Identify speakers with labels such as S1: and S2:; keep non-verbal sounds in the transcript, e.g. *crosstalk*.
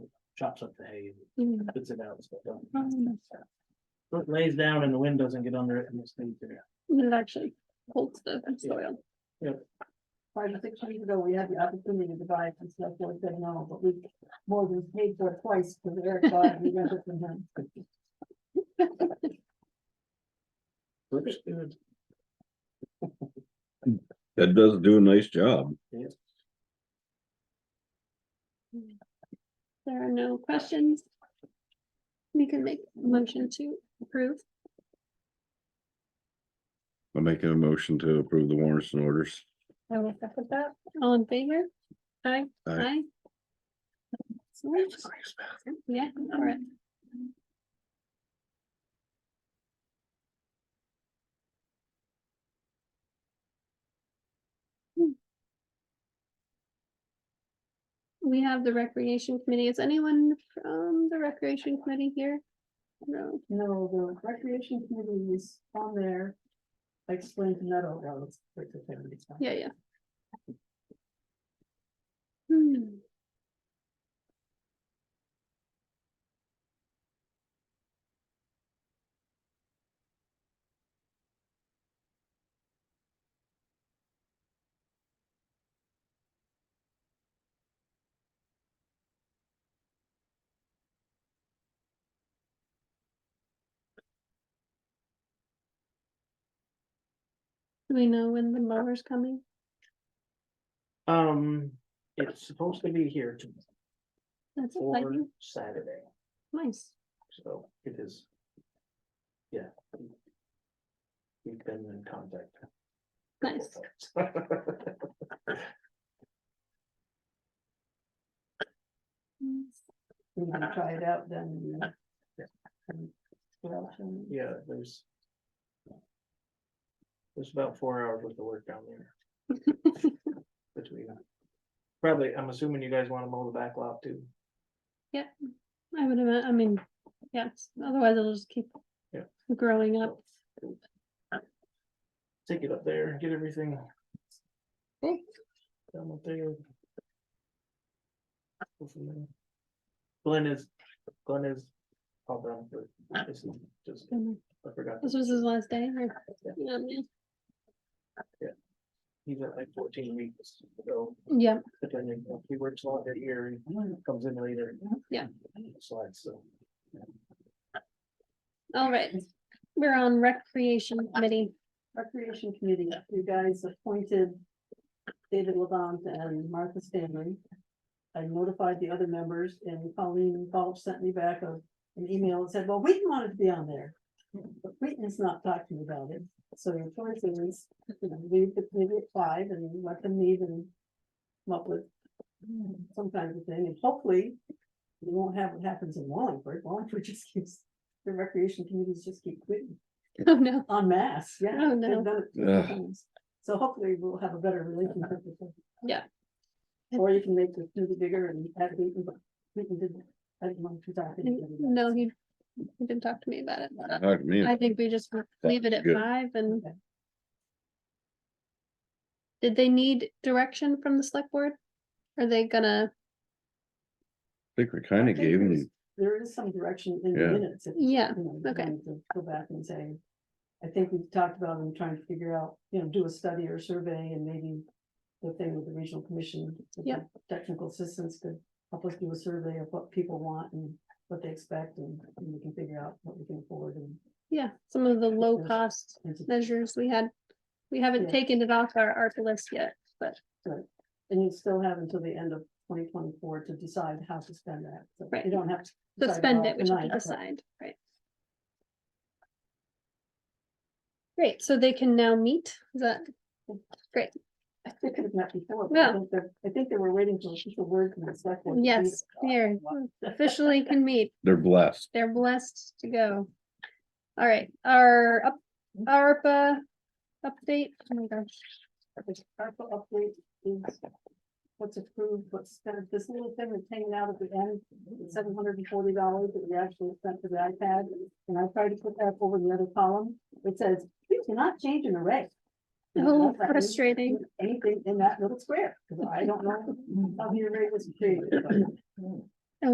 S1: chops up the hay and
S2: Mm.
S1: puts it out. so it don't- so It lays down and the wind doesn't get under it and it stays there.
S2: It actually holds the soil.
S3: Five or six years ago, we had the opportunity to buy it from select board, said no, but we more than paid for it twice because Eric bought it, we got it from him.
S1: Looks good.
S4: That does do a nice job.
S2: There are no questions. We can make a motion to approve.
S4: I'm making a motion to approve the warrants and orders.
S2: I will second that. All in favor? Aye.
S4: Aye.
S2: Aye. Excellent. Yeah, all right. Hmm. We have the recreation committee. Is anyone from the recreation committee here? No,
S3: No, the recreation committee is on there. I explained to Neto, that was. it's a family time.
S2: yeah, yeah. Hmm. Do we know when the mower's coming?
S1: Um, it's supposed to be here tomorrow
S2: That's
S1: or
S2: exciting.
S1: Saturday,
S2: Nice.
S1: so it is. Yeah. We've been in contact.
S2: Nice.
S3: We can try it out then. uh, and what else, um,
S1: *laughs* Yeah, there's. There's about four hours worth of work down there. Between. Probably, I'm assuming you guys wanna mow the back lot too.
S2: I would, ima- I mean, yes, otherwise it'll just keep
S1: Yeah.
S2: growing up.
S1: Take it up there, get everything.
S2: Okay.
S1: Down up there. Go from there. Glenn is, Glenn is. All done for, this is just,
S2: And
S1: I forgot,
S2: This was his last day. or-
S1: Yeah.
S2: Yeah, man.
S1: he's at like fourteen weeks, so.
S2: Yeah,
S1: But then you know, he works a lot that year, and comes in later.
S2: Yeah.
S1: Slides, so.
S2: all right. We're on recreation committee. *laughs*
S3: Recreation committee, you guys appointed David Levant and Martha Stanley. I notified the other members and Colleen Balch sent me back a, an email and said, well, Wheaton wanted to be on there. But Wheaton has not talked to me about it, so your choice is, you know, leave the committee at five and let them meet and come up with some kind of thing, and hopefully we won't have what happens in Wallingford, Wallingford *laughs* just keeps, the recreation committees just keep quitting.
S2: Oh, no.
S3: En masse, yeah.
S2: Oh, no.
S3: they've done it too many
S4: Ugh.
S3: times. So hopefully we'll have a better relationship with them.
S2: Yeah.
S3: Or you can make the community bigger and add Wheaton, but Wheaton didn't, I didn't want to talk to anybody.
S2: No, he, he didn't talk to me about it.
S4: Talk to me.
S2: I think we just leave it at
S4: good.
S2: five and.
S3: Okay.
S2: Did they need direction from the select board? Are they gonna,
S4: think we kind
S3: I
S4: of
S3: think
S4: gave
S3: there's-
S4: him,
S3: There is some direction in the
S4: Yeah.
S3: minutes. if you
S2: yeah,
S3: know, you
S2: okay.
S3: wanted to Go back and say, I think we've talked about them trying to figure out, you know, do a study or survey and maybe the thing with the regional commission. with the
S2: Yeah.
S3: Technical assistance could help us do a survey of what people want and what they expect and and we can figure out what we can afford and.
S2: yeah, some of the low
S3: Yes.
S2: cost
S3: and to-
S2: measures we had. We haven't
S3: Yeah.
S2: taken it off our art list yet, but
S3: And you still have until the end of twenty twenty-four to decide how to spend that. So
S2: Right.
S3: You don't have to.
S2: to
S3: decide all
S2: spend it, we should
S3: tonight, but-
S2: decide, right? Great, so they can now meet, is that,
S3: I think They could have met before. but
S2: Yeah.
S3: I think they're- I think they were waiting for official word from the select. board to do
S2: yes,
S3: it.
S2: here, officially can meet,
S4: they're blessed.
S2: they're blessed to go. All right, our, up- ARPA update, oh my gosh,
S3: The ARPA update is what's approved, what's spent, this little thing that's hanging out at the end, seven hundred and forty dollars that we actually spent for the iPad. And I tried to put that over the other column, it says, you cannot change an array. And I
S2: oh,
S3: don't like this.
S2: frustrating,
S3: Mm-hmm. anything in that little square, because I don't know how the array was created. but